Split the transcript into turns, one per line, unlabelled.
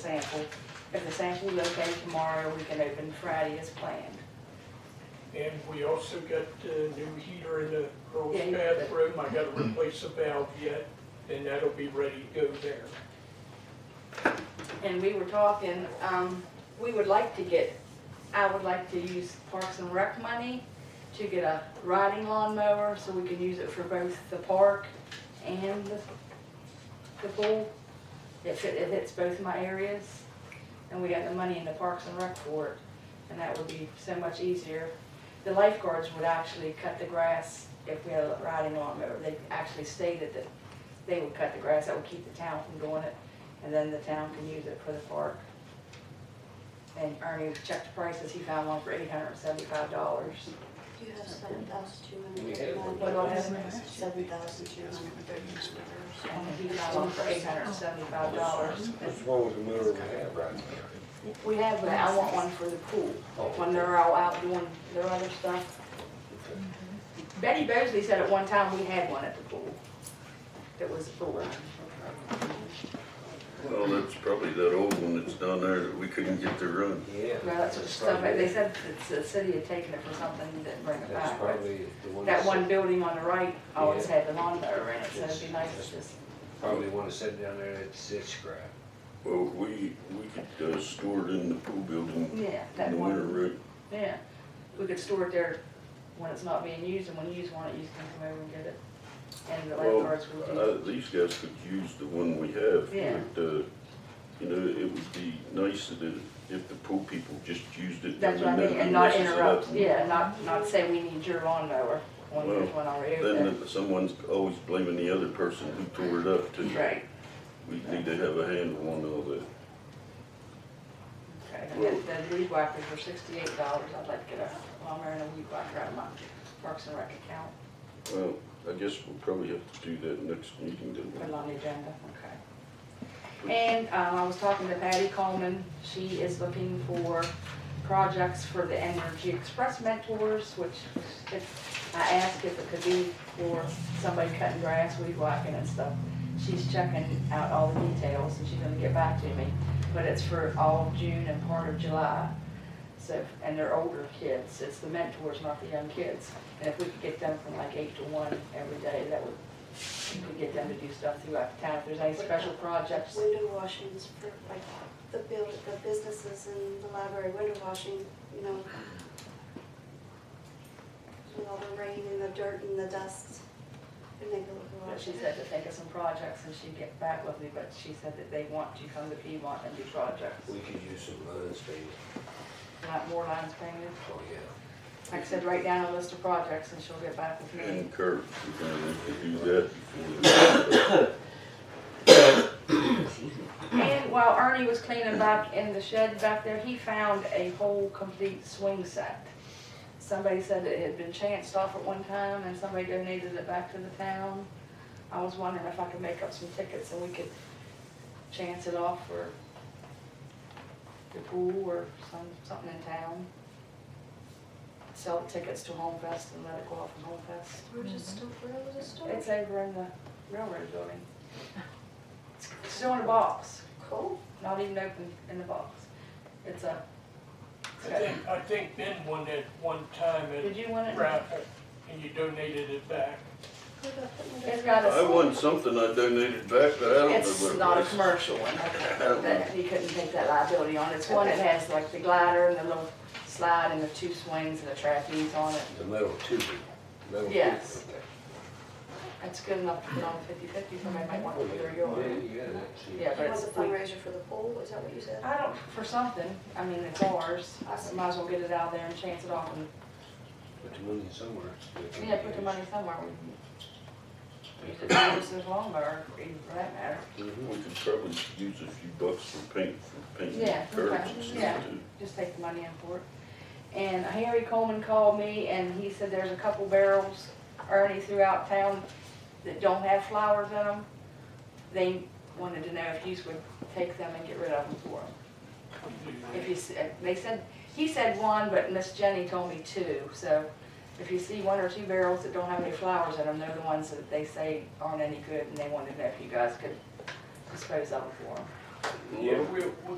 sample. If the sample is okay tomorrow, we can open Friday as planned.
And we also got a new heater in the girls'
Yeah, you-
bathroom, I gotta replace the valve yet, and that'll be ready to go there.
And we were talking, um, we would like to get, I would like to use Parks and Rec money to get a riding lawnmower, so we can use it for both the park and the, the pool. It fit, it hits both my areas, and we got the money in the Parks and Rec for it, and that would be so much easier. The lifeguards would actually cut the grass if we had a riding lawnmower, they actually stated that they would cut the grass, that would keep the town from doing it and then the town can use it for the park. And Ernie checked the prices, he found one for eight hundred and seventy-five dollars.
You have seven thousand two
We
hundred
had one.
thirty-nine dollars. Seven thousand two hundred thirty-nine
And
dollars.
he found one for eight hundred and seventifive dollars.
What's wrong with the motor we have right now?
We have, but I want one for the pool, when they're all out doing their other stuff. Betty Bosley said at one time we had one at the pool. That was a pool run.
Well, that's probably that old one that's down there that we couldn't get to run.
Yeah.
Well, that's what stuff, they said that the city had taken it for something and didn't bring it
That's
back. but
probably the one.
That one building on the right always
Yeah.
had the lawnmower in it, so it'd be nice to just
Probably one that's sitting down there that's it's scrap.
Well, we, we could uh, store it in the pool building
Yeah,
in
that
the winter,
one,
right?
yeah. We could store it there when it's not being used, and when you use one, you can come over and get it. And the
Well,
lifeguards will do.
uh, these guys could use the one we have,
Yeah.
but, uh, you know, it would be nice that it- if the pool people just used it.
That's what I
and
mean,
then
and
it
not
messes it
interrupt,
up.
yeah, not, not say we need your lawnmower when there's one already over there.
Then if someone's always blaming the other person who tore it up too.
Right,
We need to have a handle on all that.
okay. And then the weed whacker for sixty-eight dollars, I'd like to get a lawnmower and a weed whacker out of my Parks and Rec account,
Well, I guess we'll probably have to do that next meeting, don't we?
put it on the agenda, okay. And um, I was talking to Patty Coleman, she is looking for projects for the Energy Express mentors, which if, I asked if it could be for somebody cutting grass, weed whacking and stuff. She's checking out all the details and she's gonna get back to me, but it's for all of June and part of July. So, and they're older kids, it's the mentors, not the young kids. And if we could get them from like eight to one every day, that would, we could get them to do stuff throughout the town. If there's any special projects,
Window washings for like the build, the businesses and the library window washing, you know. With all the rain and the dirt and the dust. And they go look
But
wash
she
it.
said to think of some projects and she'd get back with me, but she said that they want to come to Piedmont and do projects.
We could use some lines, maybe.
Not more lines painted.
Oh, yeah.
Like I said, write down a list of projects and she'll get back with me.
And Kurt, we're gonna have to do that before.
And while Ernie was cleaning back in the shed back there, he found a whole complete swing set. Somebody said it had been chanced off at one time and somebody donated it back to the town. I was wondering if I could make up some tickets and we could chance it off for the pool or some, something in town. Sell tickets to Home Fest and let it go off in Home Fest.
Where's it still, where was it still?
It's over in the railroad building. It's still in a box,
Cool.
not even open in the box. It's a,
I think, I think Ben won it one time
did
at
you want it?
raffle, and you donated it back.
Who got that window?
It's got
I
a,
won something I donated back, but I don't know what it
it's not a
was.
commercial one,
don't
that he couldn't take that liability on. It's one that has like the glider and the little slide and the two swings and the trapeze on it.
The metal tubing. metal tubing,
Yes.
okay.
It's good enough to put on fifty-fifty, somebody might want
Oh,
to put their
yeah,
yard.
yeah, yeah, that's it.
Yeah, but
It was a
it's, we
fundraiser for the pool, is that what you said?
I don't, for something, I mean, it's ours, I s- might as well get it out there and chance it off and,
Put the money somewhere. We can
yeah, put the
use.
money somewhere.
Mm-hmm.
We could use this lawnmower, or even for that matter,
Mhm.
We could probably use a few bucks for paint, for painting
Yeah, okay,
curbs and
yeah.
stuff too.
just take the money in for it. And Harry Coleman called me and he said there's a couple barrels, Ernie, throughout town that don't have flowers in them. They wanted to know if you would take them and get rid of them for them. If you, s- uh, they said, he said one, but Miss Jenny told me two, so if you see one or two barrels that don't have any flowers in them, they're the ones that they say aren't any good, and they wanted to know if you guys could dispose of them for them.
Yeah, we, we